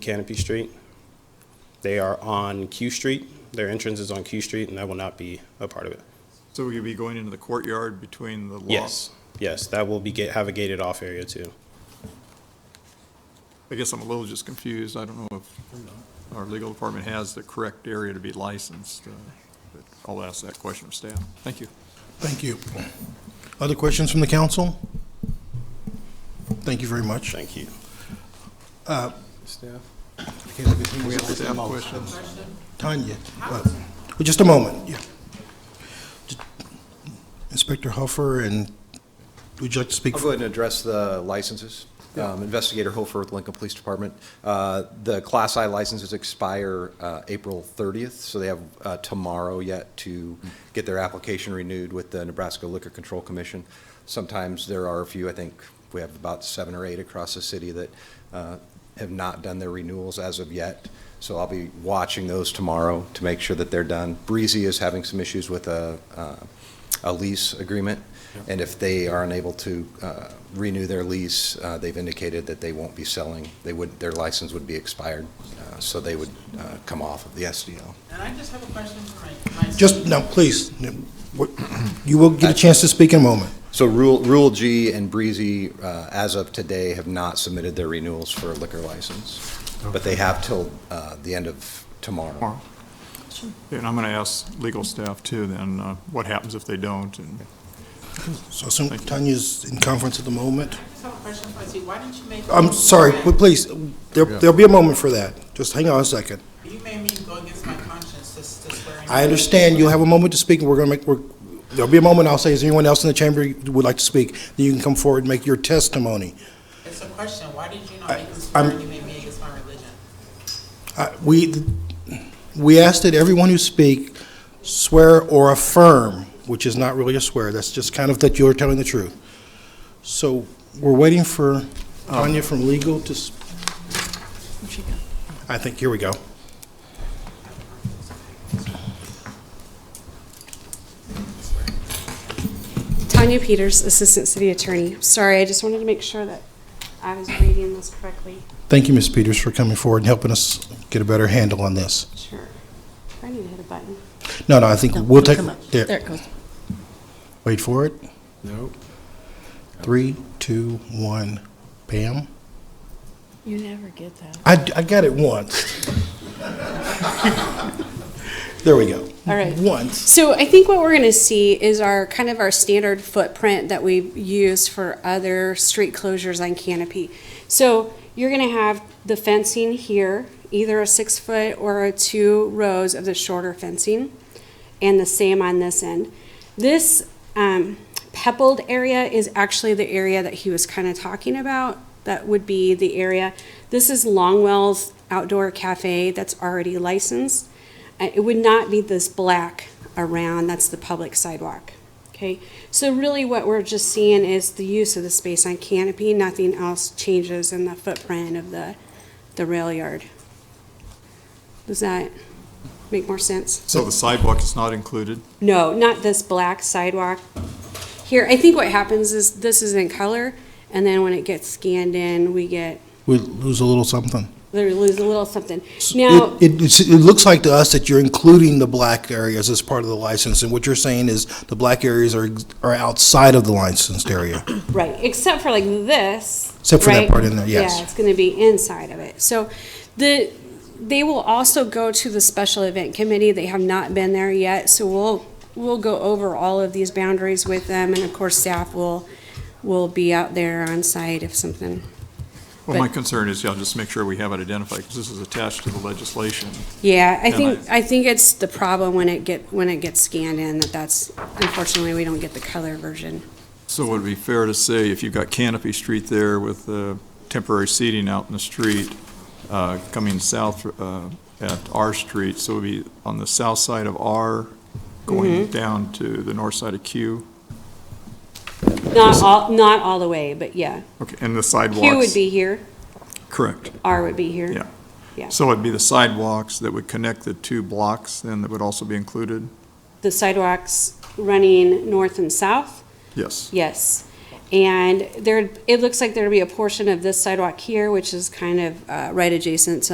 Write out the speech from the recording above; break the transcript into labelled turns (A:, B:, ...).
A: Canopy Street. They are on Q Street. Their entrance is on Q Street, and I will not be a part of it.
B: So we could be going into the courtyard between the lots?
A: Yes, yes, that will be, ga- have a gated off area too.
B: I guess I'm a little just confused. I don't know if our legal department has the correct area to be licensed. uh, but I'll ask that question of staff. Thank you.
C: Thank you. Other questions from the council? Thank you very much.
A: Thank you.
B: We have staff questions.
C: Tanya, uh, well, just a moment, yeah. Inspector Huffer, and would you like to speak?
D: I'll go ahead and address the licenses. Um, Investigator Hofer with Lincoln Police Department. Uh, The Class I licenses expire uh, April 30th, so they have uh, tomorrow yet to get their application renewed with the Nebraska Liquor Control Commission. Sometimes there are a few, I think we have about seven or eight across the city that uh, have not done their renewals as of yet. So I'll be watching those tomorrow to make sure that they're done. Breezy is having some issues with a uh, a lease agreement, and if they are unable to uh, renew their lease, uh, they've indicated that they won't be selling, they would, their license would be expired, uh, so they would uh, come off of the SDL.
E: And I just have a question for my, my.
C: Just, no, please, no, what- you will get a chance to speak in a moment.
D: So Rule Rule G and Breezy, uh, as of today, have not submitted their renewals for a liquor license, but they have till uh, the end of tomorrow.
B: Tomorrow. And I'm going to ask legal staff too, then, uh, what happens if they don't? And
C: So I assume Tanya's in conference at the moment.
E: I just have a question for you. Why didn't you make?
C: I'm
E: me
C: sorry,
E: go
C: but please, there- there'll be a moment for that. Just hang on a second.
E: ag- You made me go against my conscience to, to swear. in.
C: I understand, you'll have a moment to speak, and we're going to make, we're- there'll be a moment, I'll say, is there anyone else in the chamber who would like to speak? Then you can come forward and make your testimony.
E: It's a question. Why did you not
C: I-
E: make me swear?
C: I'm-
E: You made me against my religion.
C: Uh, We, we ask that everyone who speak swear or affirm, which is not really a swear, that's just kind of that you're telling the truth. So we're waiting for Tanya from legal to, s- I think, here we go.
F: Tanya Peters, Assistant City Attorney. Sorry, I just wanted to make sure that I was reading this correctly.
C: Thank you, Ms. Peters, for coming forward and helping us get a better handle on this.
F: Sure. I need to hit a button.
C: No, no, I think
G: No,
C: we'll take,
G: come up.
C: there.
G: There it goes.
C: Wait for it. No. Three, two, one, bam.
G: You never get that.
C: I, I got it once. there we go.
G: All right.
C: Once.
F: So I think what we're going to see is our, kind of our standard footprint that we use for other street closures on canopy. So you're going to have the fencing here, either a six foot or a two rows of the shorter fencing, and the same on this end. This um, pebbled area is actually the area that he was kind of talking about. That would be the area. This is Longwell's outdoor cafe that's already licensed. Uh, It would not be this black around, that's the public sidewalk. Okay, so really what we're just seeing is the use of the space on canopy, nothing else changes in the footprint of the, the rail yard. Does that make more sense?
B: So the sidewalk is not included?
F: No, not this black sidewalk. Here, I think what happens is this is in color, and then when it gets scanned in, we get,
C: We lose a little something.
F: they lose a little something. Now,
C: it, it, it's- it looks like to us that you're including the black areas as part of the license, and what you're saying is the black areas are, ex- are outside of the licensed area.
F: Right, except for like this.
C: Except for that
F: right?
C: part in there, yes.
F: Yeah, it's gonna be inside of it. So the, they will also go to the special event committee. They have not been there yet, so we'll, we'll go over all of these boundaries with them, and of course, staff will, will be out there on site if something,
B: Well, my
F: But-
B: concern is, yeah, just make sure we have it identified, because this is attached to the legislation.
F: yeah, I
B: And
F: think, I think it's the problem when it get, when it gets scanned in, that that's, unfortunately, we don't get the color version.
B: So would it be fair to say, if you've got Canopy Street there with uh, temporary seating out in the street, uh, coming south uh, at R Street, so it would be on the south side of R, going
F: Mm-hmm.
B: down to the north side of Q?
F: Not all, not all the way, but yeah.
B: Okay, and the sidewalks?
F: Q would be here,
B: Correct,
F: R would be here.
B: yeah.
F: Yeah.
B: So it'd be the sidewalks that would connect the two blocks, then, that would also be included?
F: the sidewalks running north and south,
B: Yes.
F: yes. And there, it looks like there'd be a portion of this sidewalk here, which is kind of uh, right adjacent to